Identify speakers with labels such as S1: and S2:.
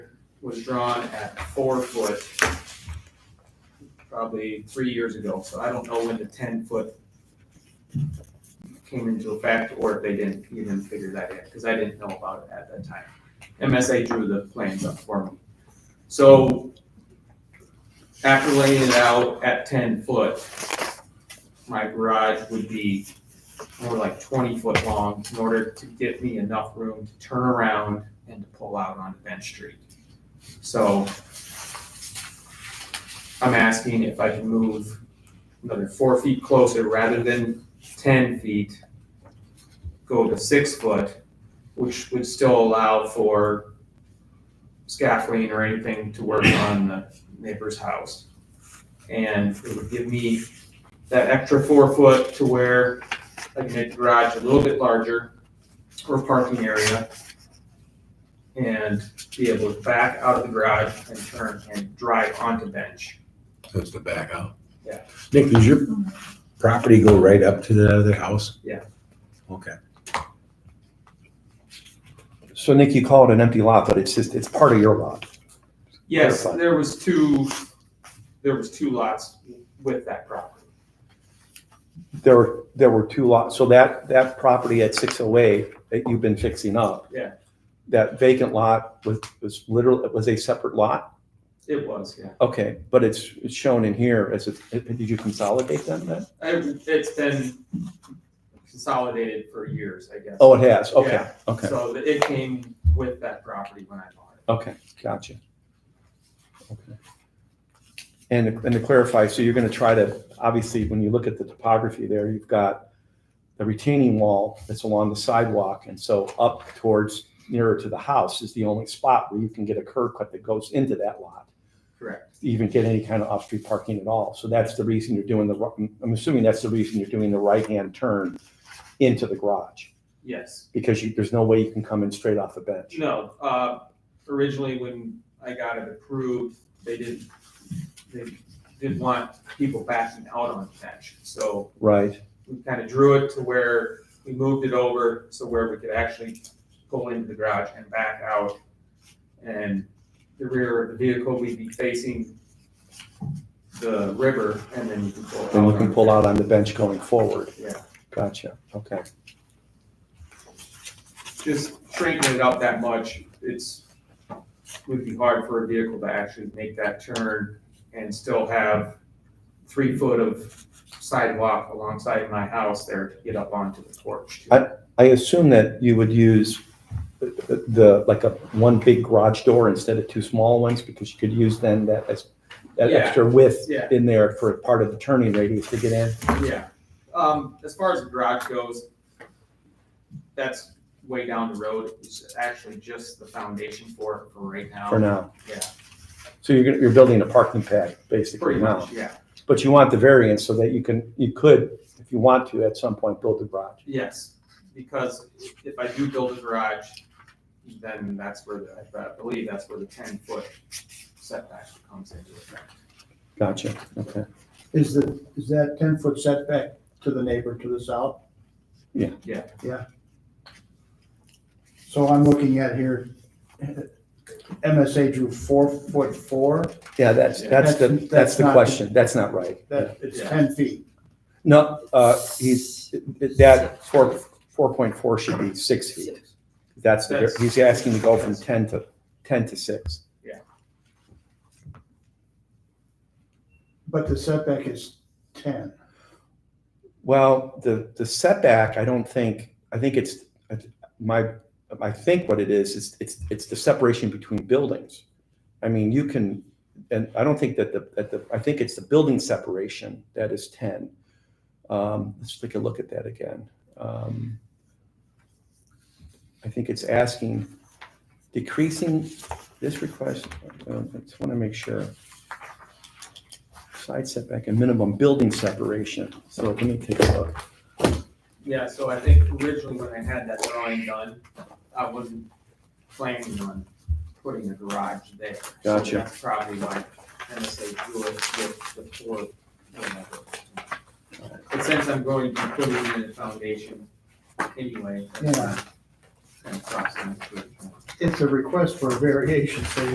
S1: was drawn at four foot probably three years ago, so I don't know when the ten foot came into effect or if they didn't even figure that in, because I didn't know about it at that time. MSA drew the plans up for me. So after laying it out at ten foot, my garage would be more like twenty foot long in order to give me enough room to turn around and to pull out onto Bench Street. So I'm asking if I can move another four feet closer rather than ten feet, go to six foot, which would still allow for scaffolding or anything to work on the neighbor's house. And it would give me that extra four foot to where I can make the garage a little bit larger or parking area and be able to back out of the garage and turn and drive onto bench.
S2: That's the back out.
S1: Yeah.
S2: Nick, does your property go right up to the other house?
S1: Yeah.
S2: Okay.
S3: So Nick, you call it an empty lot, but it's just, it's part of your lot.
S1: Yes,
S3: Clarify.
S1: there was two, there was two lots with that property.
S3: There, were there were two lots, so that, that property at six oh eight that you've been fixing up.
S1: Yeah.
S3: That vacant lot was, was literally, was a separate lot?
S1: It was, yeah.
S3: Okay, but it's, it's shown in here as a, did you consolidate them then?
S1: I- It's been consolidated for years, I guess.
S3: Oh, it has, okay,
S1: Yeah.
S3: okay,
S1: So it came with that property when I bought it.
S3: okay, gotcha. Okay. And, and to clarify, so you're gonna try to, obviously, when you look at the topography there, you've got the retaining wall that's along the sidewalk, and so up towards, nearer to the house is the only spot where you can get a curb cut that goes into that lot,
S1: Correct.
S3: even get any kind of off-street parking at all. So that's the reason you're doing the, ri- I'm assuming that's the reason you're doing the right-hand turn into the garage,
S1: Yes.
S3: because you, there's no way you can come in straight off the bench.
S1: No, uh, originally when I got it approved, they didn't, they didn't want people backing out on the bench. So
S3: Right,
S1: we kind of drew it to where we moved it over so where we could actually pull into the garage and back out. And the rear of the vehicle, we'd be facing the river and then you can pull.
S3: and you
S1: out
S3: can
S1: on
S3: pull
S1: the-
S3: out on the bench going forward.
S1: Yeah.
S3: Gotcha, okay.
S1: Just shrinking it up that much, it's, would be hard for a vehicle to actually make that turn and still have three foot of sidewalk alongside my house there to get up onto the porch. too.
S3: I assume that you would use the- the, like a, one big garage door instead of two small ones, because you could use then that, as that
S1: Yeah.
S3: extra width
S1: Yeah.
S3: in there for part of the turning radius to get in.
S1: Yeah, um, as far as the garage goes, that's way down the road, it's actually just the foundation for it for right now.
S3: for now.
S1: Yeah.
S3: So you're, gonna- you're building a parking pad basically
S1: Pretty
S3: now,
S1: much, yeah,
S3: but you want the variance so that you can, you could, if you want to, at some point, build a garage.
S1: yes, because if I do build a garage, then that's where, the- I believe that's where the ten foot setback comes into effect.
S3: Gotcha, okay.
S4: Is the, is that ten foot setback to the neighbor to the south?
S3: Yeah.
S1: Yeah.
S4: Yeah. So I'm looking at here, MSA drew four foot four,
S3: Yeah, that's,
S1: Yeah.
S3: that's
S4: That's-
S3: the, that's the
S4: that's not-
S3: question, that's not right.
S4: that, it's
S1: Yeah.
S4: ten feet.
S3: No, uh, he's, that four, four point four should be six feet. That's, the
S1: That's-
S3: he's asking to go from ten to, ten to six.
S4: But the setback is ten.
S3: Well, the, the setback, I don't think, I think it's, my, I think what it is, is it's, it's the separation between buildings. I mean, you can, and I don't think that the, that the, I think it's the building separation that is ten. Um, let's take a look at that again. Um, I think it's asking, decreasing this request, uh, I just want to make sure. Side setback and minimum building separation. So let me take a look.
S1: Yeah, so I think originally when I had that drawing done, I wasn't planning on putting a garage there. So
S3: Gotcha.
S1: That's probably why MSA drew it with the four. whatever. But since I'm going to put it in the foundation anyway. that's
S4: Yeah.
S1: kind of crossing the bridge.
S4: It's a request for a variation, so